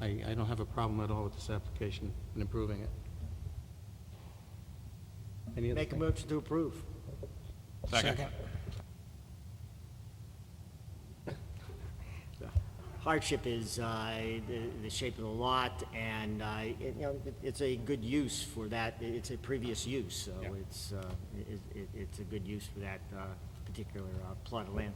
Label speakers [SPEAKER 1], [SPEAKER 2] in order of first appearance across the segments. [SPEAKER 1] I, I don't have a problem at all with this application and approving it. Any other
[SPEAKER 2] Make a
[SPEAKER 1] thing?
[SPEAKER 2] motion to approve.
[SPEAKER 3] Second.
[SPEAKER 2] Hardship is uh, the the shape of the lot, and, uh, it- you know, it- it's a good use for that, I- it's a previous use, so
[SPEAKER 3] Yeah.
[SPEAKER 2] it's, uh, it- it- it's a good use for that uh, particular uh, plot of land.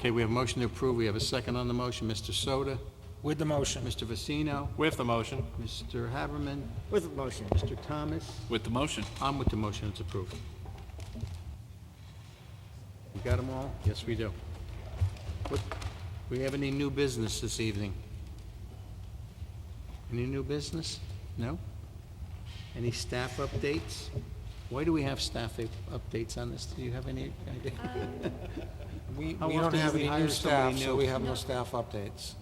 [SPEAKER 1] Okay, we have a motion to approve, we have a second on the motion, Mr. Soto,
[SPEAKER 3] With the motion.
[SPEAKER 1] Mr. Vecino,
[SPEAKER 4] With the motion.
[SPEAKER 1] Mr. Haberman,
[SPEAKER 2] With a motion,
[SPEAKER 1] Mr. Thomas.
[SPEAKER 4] With the motion.
[SPEAKER 1] I'm with the motion, it's approved. We got them all? Yes, we do. What, we have any new business this evening? Any new business? No? Any staff updates? Why do we have staff up- updates on this? Do you have any idea?
[SPEAKER 3] We,
[SPEAKER 1] How
[SPEAKER 3] Oh, we don't
[SPEAKER 1] often do
[SPEAKER 3] have
[SPEAKER 1] we
[SPEAKER 3] any
[SPEAKER 1] hire
[SPEAKER 3] new
[SPEAKER 1] somebody
[SPEAKER 3] staff, so
[SPEAKER 1] new?
[SPEAKER 3] we have no staff updates.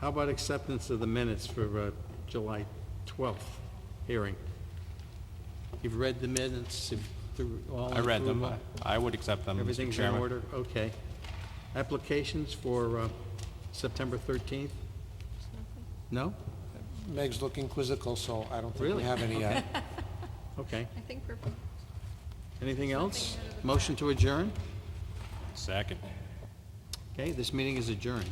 [SPEAKER 1] How about acceptance of the minutes for uh, July 12th hearing? You've read the minutes, if through all...
[SPEAKER 4] I read them.
[SPEAKER 1] approval?
[SPEAKER 4] I would accept them, Mr.
[SPEAKER 1] Everything's in
[SPEAKER 4] Chairman.
[SPEAKER 1] order, okay. Applications for uh, September 13th? No?
[SPEAKER 3] Meg's looking quizzical, so I don't think
[SPEAKER 1] Really?
[SPEAKER 3] we have any yet.
[SPEAKER 1] Okay.
[SPEAKER 5] I think we're,
[SPEAKER 1] Anything else? Motion to adjourn?
[SPEAKER 4] Second.
[SPEAKER 1] Okay, this meeting is adjourned.